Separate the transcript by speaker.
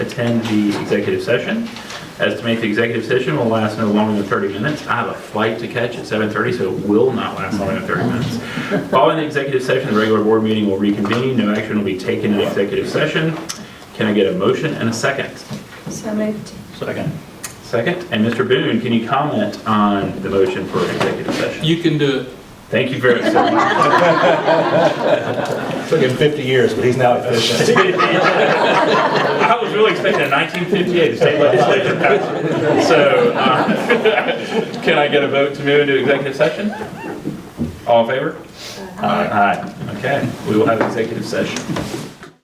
Speaker 1: attend the executive session. Estimate the executive session will last no longer than 30 minutes. I have a flight to catch at 7:30, so it will not last longer than 30 minutes. Following the executive session, the regular board meeting will reconvene. No action will be taken in executive session. Can I get a motion and a second?
Speaker 2: So moved.
Speaker 3: Second.
Speaker 1: Second, and Mr. Boone, can you comment on the motion for executive session?
Speaker 4: You can do it.
Speaker 1: Thank you very much.
Speaker 3: Took him 50 years, but he's now efficient.
Speaker 1: I was really expecting a 1958 state legislature passed. So, uh, can I get a vote to move into executive session? All in favor? Aye. Okay, we will have executive session.